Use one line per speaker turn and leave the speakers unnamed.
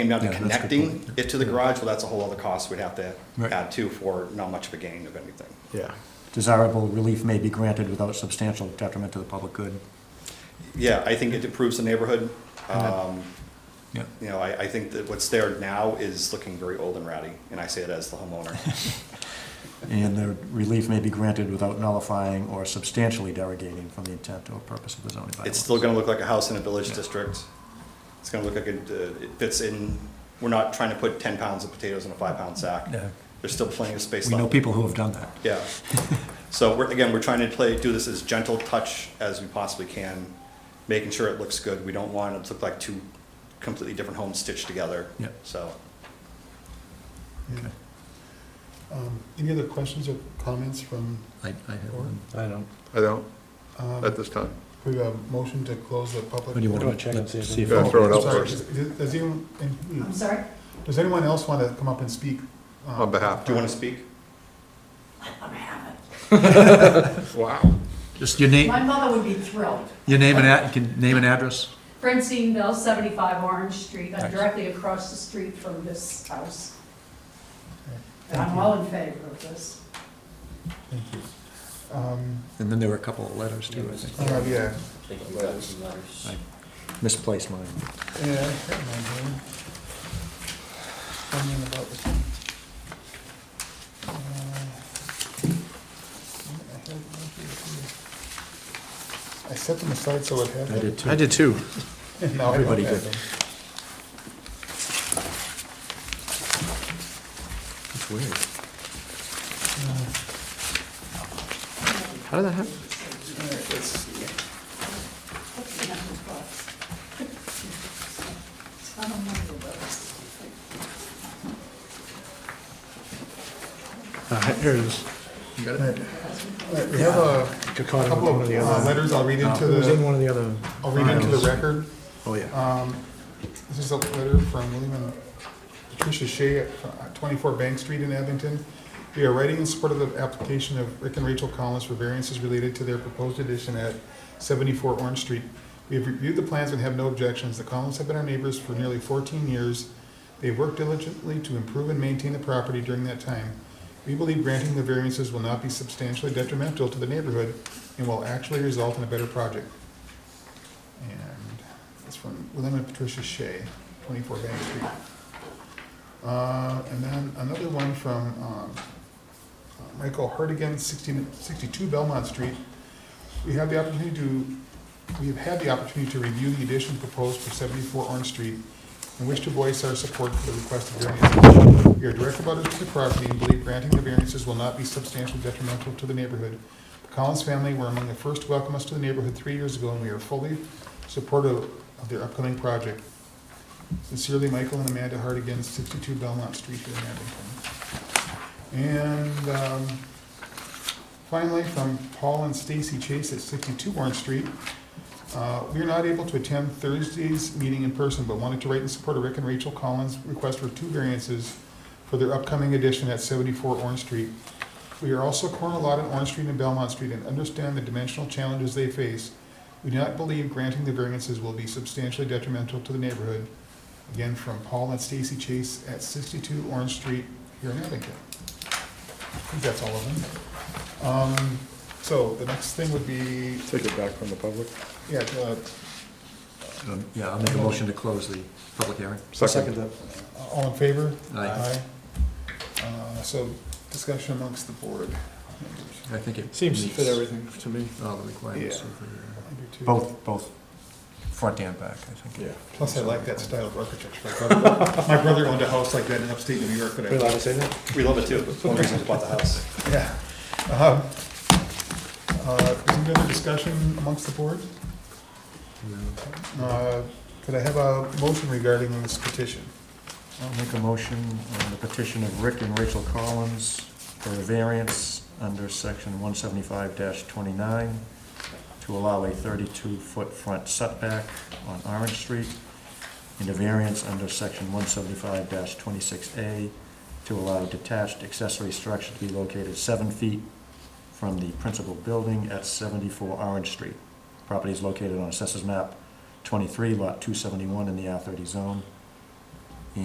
Came down to
Yeah, that's a good
connecting
point.
it to the garage, well, that's a whole other cost we'd have to
Right.
add to for not much of a gain of anything.
Yeah.
Desirable relief may be granted without substantial detriment to the public good.
Yeah, I think it improves the neighborhood. Um,
Yeah.
You know, I, I think that what's there now is looking very old and ratty, and I say it as the homeowner.
And the relief may be granted without nullifying or substantially derogating from the intent or purpose of the zoning bylaw.
It's still gonna look like a house in a village
Yeah.
district. It's gonna look like it, uh, it fits in, we're not trying to put ten pounds of potatoes in a five-pound sack.
No.
There's still plenty of space
We
left.
know people who have done that.
Yeah. So we're, again, we're trying to play, do this as gentle touch as we possibly can, making sure it looks good. We don't want it to look like two completely different homes stitched together.
Yeah.
So,
Okay.
Um, Any other questions or comments from,
I, I have
one.
I don't.
I don't,
um,
at this time.
we have a motion to close the public?
do you want
Go
to
check and see if
see if?
Yeah,
all-
throw it out.
Sorry, does- Does anyone, hmm,
I'm sorry?
does anyone else want to come up and speak? um,
On behalf.
do you want to speak?
I'm happy.
Wow.
Just your name,
My mother would be thrilled.
your name and ad, you can name and address?
Francine Bell, 75 Orange Street, I'm
Nice.
directly across the street from this house. And
Thank
I'm
you.
all in favor of this.
Thank you. Um,
And then there were a couple of letters too, I think.
uh, Yeah.
I misplaced mine.
Yeah, I got mine here. Something about this one. Uh, I had it right here, too. I set them aside so it had.
I did too.
I did too.
No, I don't
Everybody
have
did.
them.
It's weird. How did that happen?
What's the number of I don't remember those.
Uh, here it is.
All right, We have a
Got caught in
couple
one of
of
the
uh,
other.
letters I'll read into
It was in
the,
one of the other.
I'll read into the
files.
record.
Oh, yeah.
Um, This is a letter from William and Patricia Shea at uh, 24 Bank Street in Abington. We are writing in support of the application of Rick and Rachel Collins for variances related to their proposed addition at 74 Orange Street. We have reviewed the plans and have no objections. The Collins have been our neighbors for nearly 14 years. They worked diligently to improve and maintain the property during that time. We believe granting the variances will not be substantially detrimental to the neighborhood and will actually result in a better project. And it's from William and Patricia Shea, 24 Bank Street. Uh, And then another one from um, uh, Michael Hartigan, 16 62 Belmont Street. We have the opportunity to, we have had the opportunity to review the addition proposed for 74 Orange Street and wish to voice our support for the requested variance. We are direct about it to the property and believe granting the variances will not be substantially detrimental to the neighborhood. The Collins family were among the first to welcome us to the neighborhood three years ago, and we are fully supportive of their upcoming project. Sincerely, Michael and Amanda Hartigan, 62 Belmont Street here in Abington. And um, finally, from Paul and Stacy Chase at 62 Orange Street. uh, We are not able to attend Thursday's meeting in person, but wanted to write in support of Rick and Rachel Collins' request for two variances for their upcoming addition at 74 Orange Street. We are also corner lot at Orange Street and Belmont Street and understand the dimensional challenges they face. We do not believe granting the variances will be substantially detrimental to the neighborhood. Again, from Paul and Stacy Chase at 62 Orange Street here in Abington. I think that's all of them. Um, So the next thing would be,
Take it back from the public.
yeah, uh,
Um, Yeah, I'll make a motion to close the public hearing.
Second.
Uh, all in favor?
Aye.
Aye. Uh, So discussion amongst the board.
I think it
Seems to
meets
fit everything to me.
All the requirements
Yeah.
of the,
I do too.
uh, both, both front and back, I think.
Plus, I like that style of architecture. My brother- My brother owned a house like that in upstate New York, but
Are we
I
allowed to say that?
We love it too. It's one reason we bought the house.
Yeah. Um, uh, Is there any other discussion amongst the board? Uh, Could I have a motion regarding this petition?
I'll make a motion on the petition of Rick and Rachel Collins for a variance under section one seventy-five twenty-nine to allow a thirty-two foot front setback on Orange Street and a variance under section one seventy-five twenty-six A to allow detached accessory structure to be located seven feet from the principal building at seventy-four Orange Street. Property is located on Assessors Map twenty-three, lot two seventy-one in the R thirty zone.